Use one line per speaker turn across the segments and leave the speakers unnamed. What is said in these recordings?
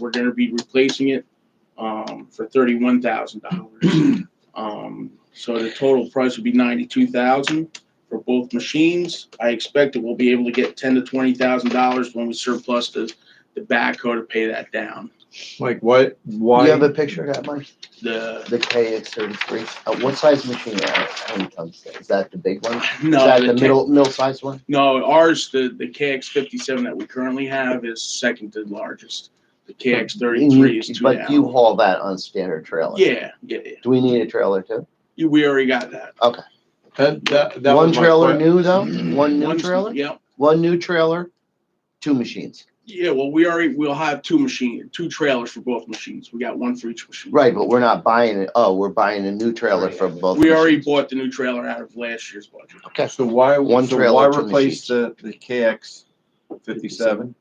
We're gonna be replacing it, um, for thirty-one thousand dollars. Um, so the total price would be ninety-two thousand for both machines. I expect that we'll be able to get ten to twenty thousand dollars when we surplus the, the backhoe to pay that down.
Like what?
Do
Why?
you have a picture of that, Mike?
The,
The KX thirty-three, uh, what size machine are, how many tons, is that the big one? Is
no.
that the
K-
middle, middle sized one?
No, ours, the, the KX fifty-seven that we currently have is second to largest. The KX thirty-three is two
Mm, But you
down.
haul that on standard trailer?
Yeah, yeah, yeah.
Do we need a trailer too?
You- We already got that.
That, that, that
One
was my
trailer
que-
new though, one new
One's-
trailer,
Yep.
one new trailer, two machines.
Yeah, well, we already, we'll have two machine, two trailers for both machines. We got one for each machine.
Right, but we're not buying it, oh, we're buying a new trailer for both.
We already
machines.
bought the new trailer out of last year's budget.
So why?
One
so
trailer,
Why
two
replace the the KX fifty-seven?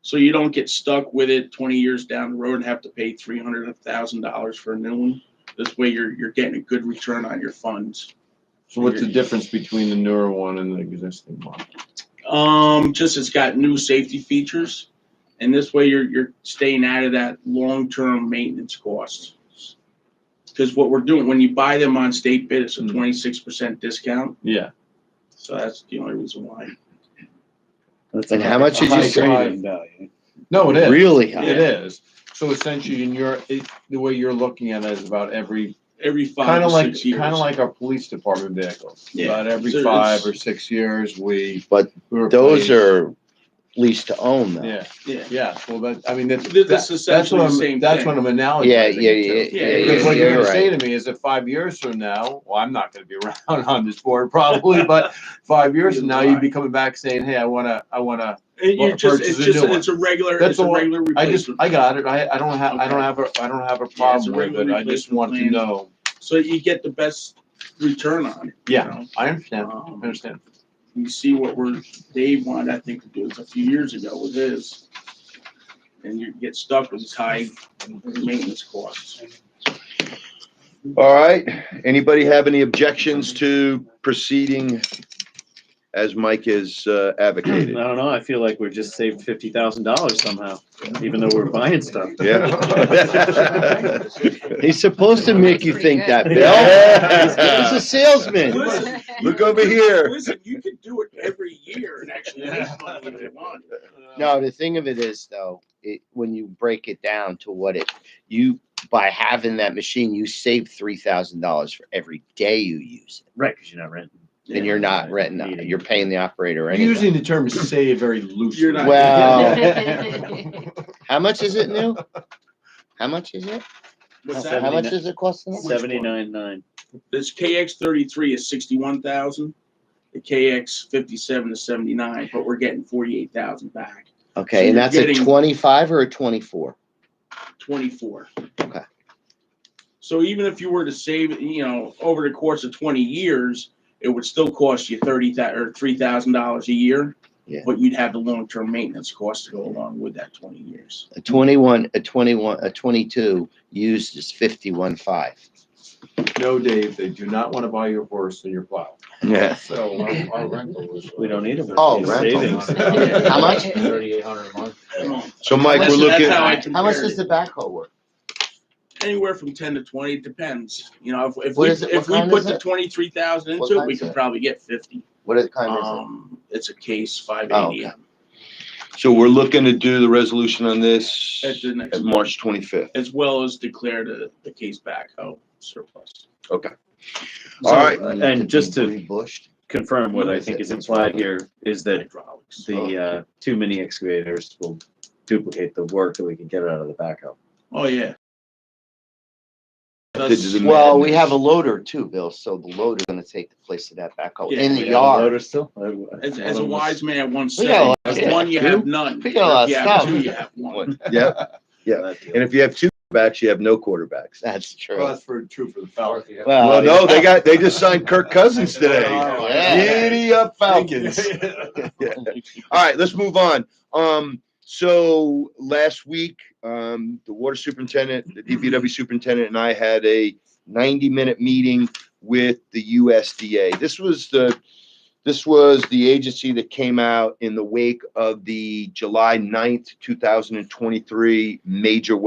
So you don't get stuck with it twenty years down the road and have to pay three hundred thousand dollars for a new one. This way you're, you're getting a good return on your funds.
So what's the difference between the newer one and the existing one?
Um, just it's got new safety features. And this way you're, you're staying out of that long-term maintenance cost. Cause what we're doing, when you buy them on state bid, it's a
Mhm.
Mm-hmm.
twenty-six percent discount.
Yeah.
So that's the only reason why.
That's
And
a-
how much
a
did you
high
say?
trade-in value.
No, it is.
Really high.
It is. So essentially, in your it, the way you're looking at it is about every
every five
kind
or
of like
six years.
kind of like our police department vehicles.
Yeah.
About every
So
five
it's-
or six years, we
But
we replace-
Those are leased to own though.
Yeah,
yeah.
yeah. Well, that I mean that's
Th- that's
that- that's
essentially
what
the
I'm
same
that's
thing.
what I'm analogizing.
Yeah, yeah,
it to.
yeah, yeah,
Yeah,
yeah,
because
Because
yeah,
what you're
you're
gonna say
right.
to me is that five years from now, well, I'm not gonna be around on this board probably, but five years from now, you'd be coming back saying, hey, I wanna, I wanna,
And you
Well,
just,
purchase
it's
a
just,
new one.
it's a regular,
That's
it's a
all.
regular
I just,
replacement.
I got it, I, I don't have, I don't
Okay.
have a, I don't have
Yeah,
a
it's a
problem with it,
regular
I just
replacement
want to
plan.
know.
So you get the best return on it. you
Yeah.
know?
I understand, I
Um,
understand.
You see what we're, Dave wanted, I think, to do this a few years ago with his. And you get stuck with these high maintenance costs.
All right, anybody have any objections to proceeding as Mike has uh,
I
advocated?
don't know, I feel like we're just saved fifty thousand dollars somehow, even though we're buying stuff.
Yeah.
He's supposed to make you think that, Bill.
Yeah.
He's a salesman.
Listen,
Look over here.
Listen, you could do it every year and actually make money if you want.
No, the thing of it is though, it, when you break it down to what it, you, by having that machine, you save three thousand dollars for every day you use
Right, cause you're not renting.
it. And you're not renting,
Yeah.
it. you're paying the operator
You're
anyway.
Using the term save very loosely.
You're not-
Well- How much is it new? How much is it?
What's
So
that?
How much is it costing? us?
Seventy-nine nine.
This KX thirty-three is sixty-one thousand, the KX fifty-seven is seventy-nine, but we're getting forty-eight thousand back,
Okay,
you're
and that's a
getting-
twenty-five or a twenty-four?
twenty-four.
Okay.
So even if you were to save, you know, over the course of twenty years, it would still cost you thirty thousand or three thousand dollars a year.
Yeah.
But you'd have the long-term maintenance cost to go along with that twenty years.
A twenty-one, a twenty-one, a twenty-two used is fifty-one five.
No, Dave, they do not wanna buy your horse and your plow,
Yeah.
so um, our- our rental is.
We don't need them.
Oh,
It's
rental.
savings.
How much?
Thirty-eight hundred a month.
So Mike, we're
Listen, that's
looking,
how I
How much
compared
does
it.
the backhoe work?
Anywhere from ten to twenty, it depends, you know, if, if
What
we,
is it-
if
what
we
kind
put
is
the
it?
twenty-three thousand
What
into it,
kind
we
is
could
it?
probably get fifty.
What is- kind is it?
Um, it's a case five
Oh,
eighty.
so we're looking to do the resolution on this
At the next
at
month,
March twenty-fifth.
as well as declare the, the case backhoe surplus.
All right.
And just to
Rebushed.
confirm what I think is implied here is that
Hydraulics.
the, uh, two mini excavators will duplicate the work that we can get out of the backhoe.
Oh, yeah.
This is a-
Well, we have a loader too, Bill, so the loader's gonna take the place of that backhoe
Yeah,
in
we
the
have a
yard.
Loader still?
As, as a wise man once
We got a
said,
lot
if
of
one you
stuff,
have
dude.
none.
We got a lot of
If you have
stuff.
two, you have one.
Yeah,
Yeah.
and if you have two backs, you have no quarterbacks.
That's
Well,
true.
that's for, true for the Falcons.
Well, no, they got, they just signed Kirk Cousins today.
Oh,
Yeah.
Giddy up Falcons. All right, let's move on. Um, so last week, um, the water superintendent, the DPW superintendent and I had a ninety minute meeting with the USDA. This was the This was the agency that came out in the wake of the July 9th, two thousand and twenty-three major